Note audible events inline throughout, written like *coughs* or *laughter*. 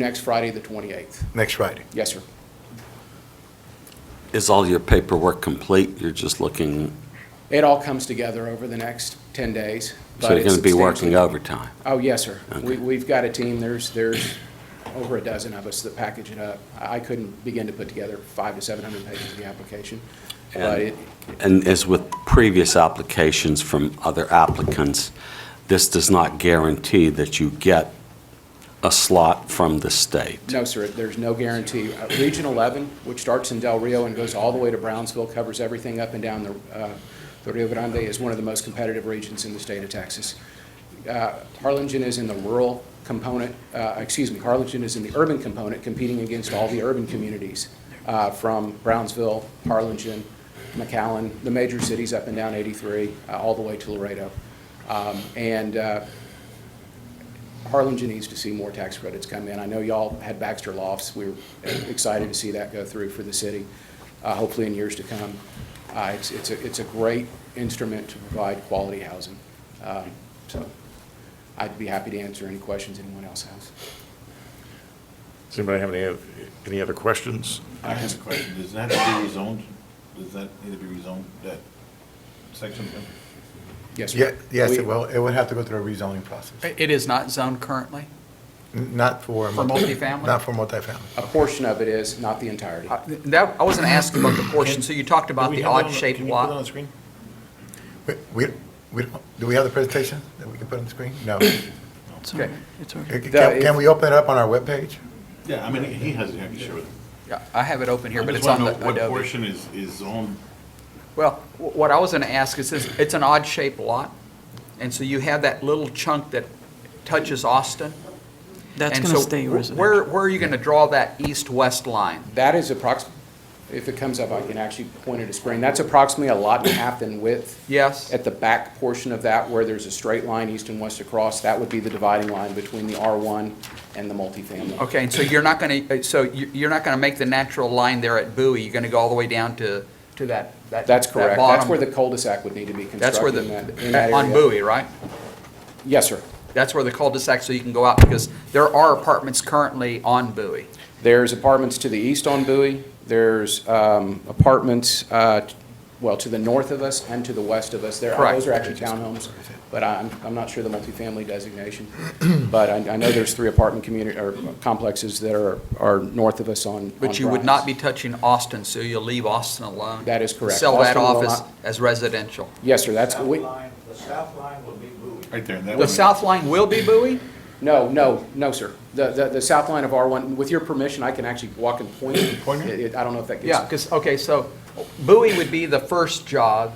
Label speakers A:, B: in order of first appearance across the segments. A: next Friday, the 28th.
B: next Friday.
A: Yes, sir.
C: Is all your paperwork complete? You're just looking,
A: It all comes together over the next 10 days.
C: so
A: but
C: you're going to
A: it's
C: be working
A: substantially-
C: overtime?
A: Oh, yes, sir. We- We've got a team, there's, there's over a dozen of us that package it up. I I couldn't begin to put together five to 700 pages of the application, but it,
C: And as with previous applications from other applicants, this does not guarantee that you get a slot from the state.
A: No, sir, there's no guarantee. Uh, Region 11, which starts in Del Rio and goes all the way to Brownsville, covers everything up and down the uh, the Rio Grande, is one of the most competitive regions in the state of Texas. Uh, Harlingen is in the rural component, uh, excuse me, Harlingen is in the urban component, competing against all the urban communities uh, from Brownsville, Harlingen, McAllen, the major cities up and down 83, uh, all the way to Laredo. Um, And uh, Harlingen needs to see more tax credits come in. I know y'all had Baxter Lofts. We were excited to see that go through for the city, uh, hopefully in years to come. Uh, It's, it's, a- it's a great instrument to provide quality housing. Um, So I'd be happy to answer any questions anyone else has.
D: Does anybody have any, oth- any other questions?
E: I have a question, does that have to be rezoned, does that need to be rezoned, that section?
A: Yes,
B: Yeah,
A: sir.
B: Yes,
A: We-
B: it will, it would have to go through a rezoning process,
F: It it is not zoned currently.
B: N- not for.
F: For
B: multi-
F: multifamily?
B: Not for multifamily.
A: A portion of it is, not the entirety.
F: I- That, I wasn't asking *coughs* about the portion, so you talked about the odd-shaped
E: Can you put it on
F: lot.
E: the screen?
B: We, we, we don't- do we have the presentation that we can put on the screen? No.
F: It's all right, it's all right.
B: Can can we open it up on our webpage?
E: Yeah, I mean, he has it, I can share with him.
F: Yeah, I have it open here,
E: I
F: but
E: just
F: it's on
E: wanna
F: the
E: know What
F: Adobe.
E: portion is, is on,
F: Well, wh- what I was going to ask is, this: it's an odd-shaped lot, and so you have that little chunk that touches Austin.
G: That's
F: and
G: going to
F: so
G: stay
F: wh-
G: residential.
F: Where, where are you going to draw that east-west line?
A: That is approx, if it comes up, I can actually point at a screen. That's approximately a lot and a half in width.
F: Yes?
A: At the back portion of that, where there's a straight line east and west across, that would be the dividing line between the R1 and the multifamily.
F: Okay, and so you're not going to, so you- you're not going to make the natural line there at Bowie, you're going to go all the way down to, to that, that
A: That's
F: that
A: correct. That's
F: bottom-
A: where the cul-de-sac would need to be
F: That's where
A: constructed in that, in that area.
F: the, *laughs* on Bowie, right?
A: Yes, sir.
F: That's where the cul-de-sac, so you can go out, because there are apartments currently on Bowie.
A: There's apartments to the east on Bowie. There's um, apartments, uh, well, to the north of us and to the west of us. There,
F: Correct.
A: those are actually townhomes, but I'm, I'm not sure the multifamily
F: *clears throat*
A: designation. But I, I know there's three apartment community, or complexes that are, are north of us on. on
F: But you would not
A: Grimes.
F: be touching Austin, so you'll leave Austin alone.
A: That is correct.
F: Sell that
A: Austin will
F: office
A: not-
F: as residential.
A: Yes, sir, that's,
H: South
A: we,
H: line- The south line will be moved.
E: right there, that
F: The
E: one.
F: south line will be Bowie?
A: No, no, no, sir. The, the, the south line of R1, with your permission, I can actually walk and point.
E: Pointer?
A: It- it- I don't know if that
F: Yeah,
A: gets,
F: because, okay, so Bowie would be the first jog,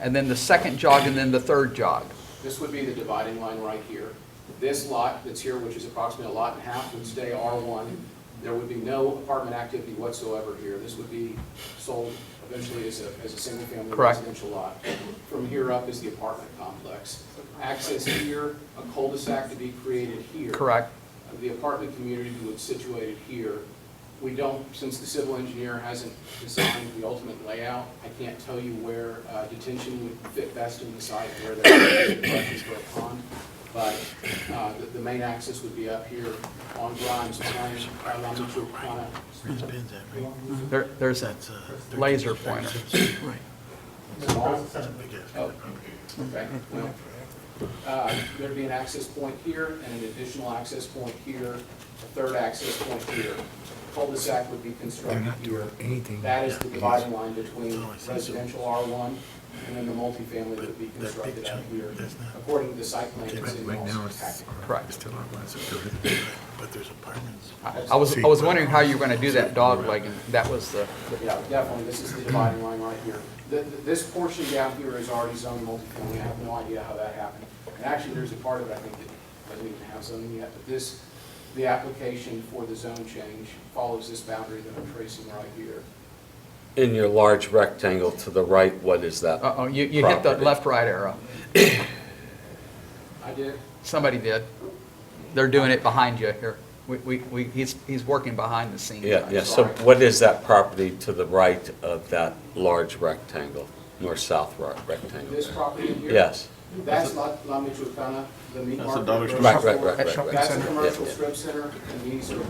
F: and then the second jog, and then the third jog.
A: this would be the dividing line right here. This lot that's here, which is approximately a lot and a half, would stay R1. There would be no apartment activity whatsoever here. This would be sold eventually as a, as a single-family
F: Correct.
A: residential lot. From here up is the apartment complex. Access here, a cul-de-sac to be created here.
F: Correct.
A: the apartment community that's situated here. We don't, since the civil engineer hasn't designed the ultimate layout, I can't tell you where uh, detention would fit best in the site, where there are structures for a pond. But uh, the- the main axis would be up here on Grimes, Plain, along the Tropicana.
F: There, there's a laser pointer.
A: Oh, okay, well, uh, There'd be an access point here and an additional access point here, a third access point here. Cul-de-sac would be constructed here.
B: anything.
A: That is the dividing line between residential R1 and then the multifamily that would be constructed out here, according to the site plan that's in Austin's package.
F: Correct.
B: Still But there's apartments.
F: I I was, I was wondering how you were going to do that dog leg, and that was the,
A: Yeah, definitely, this is the dividing line right here. Th- th- This portion down here is already zoned multifamily, I have no idea how that happened. And actually, there's a part of it, I think, that doesn't even have zoning yet, but this, the application for the zone change follows this boundary that I'm tracing right here.
C: In your large rectangle to the right, what is that?
F: uh-oh, you, you hit the
C: property?
F: left-right arrow.
A: I did,
F: Somebody did. They're doing it behind you here. We, we, we he's, he's working behind the scenes.
C: Yeah, yeah, so what is that property to the right of that large rectangle, north-south ro- rectangle?
A: this property here.
C: Yes,
A: That's La La Michoacana, the meat
E: That's a
A: market.
E: dollar
A: grocery
E: store.
C: Right, right, right,
A: store.
C: right, right.
A: That's a
C: Shopping center.
A: commercial
C: Yeah, yeah.
A: strip center, and these are